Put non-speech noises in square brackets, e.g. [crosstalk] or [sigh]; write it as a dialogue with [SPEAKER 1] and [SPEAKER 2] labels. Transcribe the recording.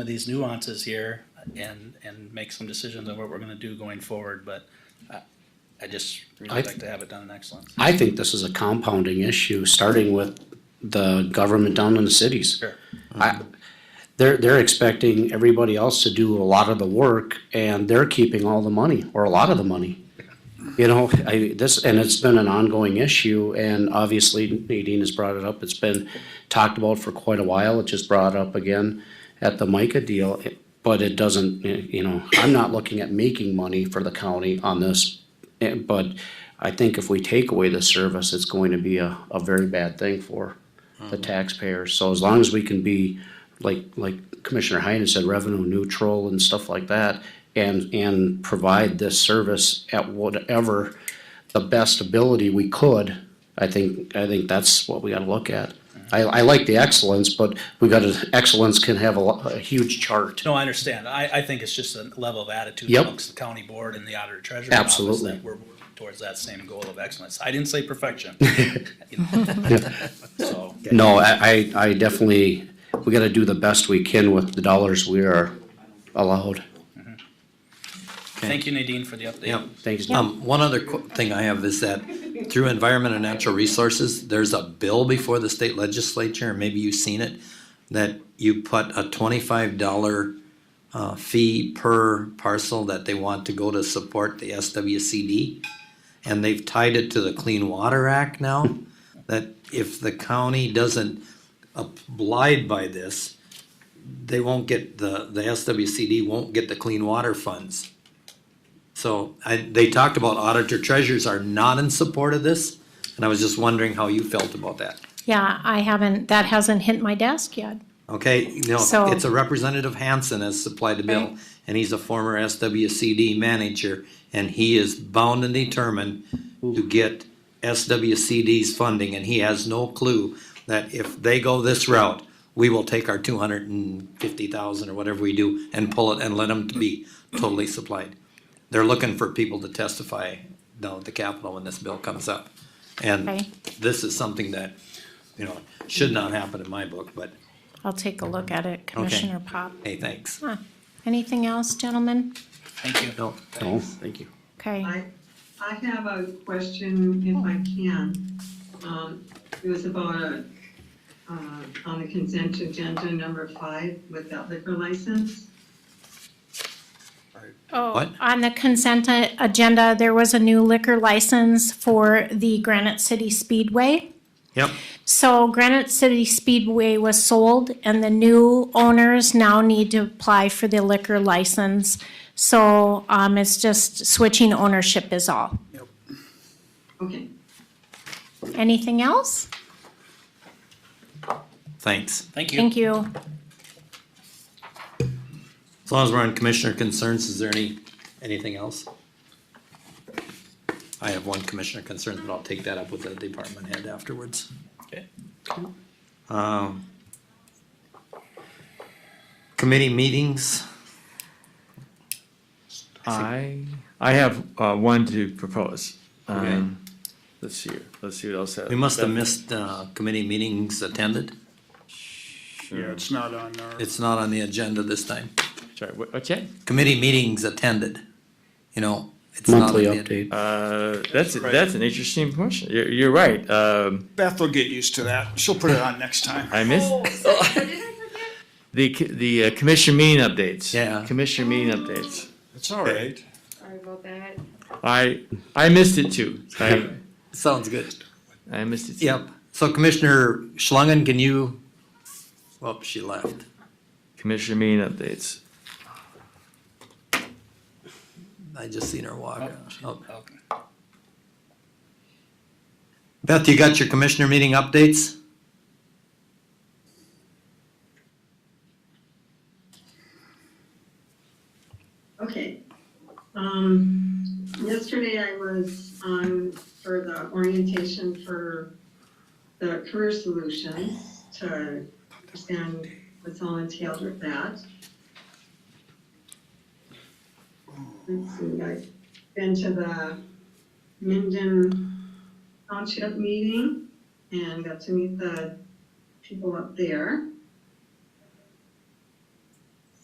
[SPEAKER 1] of these nuances here and, and make some decisions on what we're gonna do going forward, but I- I just really
[SPEAKER 2] I-
[SPEAKER 1] like to have it done in excellence.
[SPEAKER 2] I think this is a compounding issue, starting with the government down in the cities.
[SPEAKER 1] Sure.
[SPEAKER 2] I, they're, they're expecting everybody else to do a lot of the work and they're keeping all the money or a lot of the money. You know, I, this, and it's been an ongoing issue and obviously Nadine has brought it up. It's been talked about for quite a while. It just brought up again at the MICA deal. But it doesn't, you know, I'm not looking at making money for the county on this. eh, But I think if we take away the service, it's going to be a, a very bad thing for the taxpayers. So as long as we can be, like, like Commissioner Heinen said, revenue neutral and stuff like that, and, and provide this service at whatever the best ability we could, I think, I think that's what we gotta look at. I, I like the excellence, but we gotta, excellence can have a, lo- a huge chart.
[SPEAKER 1] No, I understand. I, I think it's just a level of attitude
[SPEAKER 2] Yep.
[SPEAKER 1] amongst the county board and the auditor treasurer office
[SPEAKER 2] Absolutely.
[SPEAKER 1] that we're working towards that same goal of excellence. I didn't say
[SPEAKER 2] [laughs]
[SPEAKER 1] perfection. So,
[SPEAKER 2] No, I, I, I definitely, we gotta do the best we can with the dollars we are allowed.
[SPEAKER 1] thank you Nadine for the update.
[SPEAKER 3] Yeah.
[SPEAKER 2] Thanks, Nick.
[SPEAKER 3] Um, one other qu- thing I have is that through Environment and Natural Resources, there's a bill before the state legislature, and maybe you've seen it, that you put a twenty-five dollar uh, fee per parcel that they want to go to support the SWCD. And they've tied it to the Clean Water Act now, that if the county doesn't abide by this, they won't get the, the SWCD won't get the clean water funds. So I, they talked about auditor treasurers are not in support of this, and I was just wondering how you felt about that.
[SPEAKER 4] Yeah, I haven't, that hasn't hit my desk yet.
[SPEAKER 3] Okay, you know,
[SPEAKER 4] So-
[SPEAKER 3] it's a Representative Hansen has supplied the bill,
[SPEAKER 4] Right.
[SPEAKER 3] and he's a former SWCD manager, and he is bound and determined to get SWCD's funding, and he has no clue that if they go this route, we will take our two hundred and fifty thousand or whatever we do and pull it and let them be totally supplied. They're looking for people to testify down at the Capitol when this bill comes up. And
[SPEAKER 4] Okay.
[SPEAKER 3] this is something that, you know, should not happen in my book, but
[SPEAKER 4] I'll take a look at it, Commissioner Pop.
[SPEAKER 3] hey, thanks.
[SPEAKER 4] Huh. Anything else, gentlemen?
[SPEAKER 1] Thank you.
[SPEAKER 3] No,
[SPEAKER 2] No, thank you.
[SPEAKER 4] Okay,
[SPEAKER 5] I, I have a question if I can. Um, It was about a, uh, on the consent agenda, number five, with that liquor license.
[SPEAKER 4] oh,
[SPEAKER 3] What?
[SPEAKER 4] on the consent a- agenda, there was a new liquor license for the Granite City Speedway.
[SPEAKER 3] Yep.
[SPEAKER 4] So Granite City Speedway was sold and the new owners now need to apply for the liquor license. So, um, it's just switching ownership is all.
[SPEAKER 5] Okay,
[SPEAKER 4] Anything else?
[SPEAKER 3] Thanks.
[SPEAKER 1] Thank you.
[SPEAKER 4] Thank you.
[SPEAKER 3] As long as we're on commissioner concerns, is there any, anything else? I have one commissioner concerns, but I'll take that up with the department head afterwards.
[SPEAKER 1] Okay.
[SPEAKER 3] Um, Committee meetings,
[SPEAKER 6] I, I have uh, one to propose.
[SPEAKER 3] Okay.
[SPEAKER 6] Um, Let's see, here. let's see what else.
[SPEAKER 3] we must have missed, uh, committee meetings attended.
[SPEAKER 7] Yeah, it's not on our,
[SPEAKER 3] It's not on the agenda this time.
[SPEAKER 6] Sorry, what- what's that?
[SPEAKER 3] Committee meetings attended, you know. it's not
[SPEAKER 2] Monthly
[SPEAKER 3] on the-
[SPEAKER 2] update.
[SPEAKER 6] Uh, That's, that's an interesting question. You're, you're right. Um,
[SPEAKER 7] Beth will get used to that. She'll put it on next time.
[SPEAKER 6] I missed the, c- the uh, commission meeting updates.
[SPEAKER 3] Yeah.
[SPEAKER 6] Commission meeting updates.
[SPEAKER 7] It's all right.
[SPEAKER 8] Sorry about that.
[SPEAKER 6] I, I missed it too. I,
[SPEAKER 3] Sounds good.
[SPEAKER 6] I missed it. too.
[SPEAKER 3] Yep, so Commissioner Schlangen, can you, well, she left.
[SPEAKER 6] Commission meeting updates.
[SPEAKER 3] I just seen her walk. Oh. out.
[SPEAKER 1] Okay.
[SPEAKER 3] Beth, you got your commissioner meeting updates?
[SPEAKER 5] okay. Um, Yesterday I was on for the orientation for the career solutions to understand what's all entailed with that. Let's see, I've been to the Minden Township meeting and got to meet the people up there.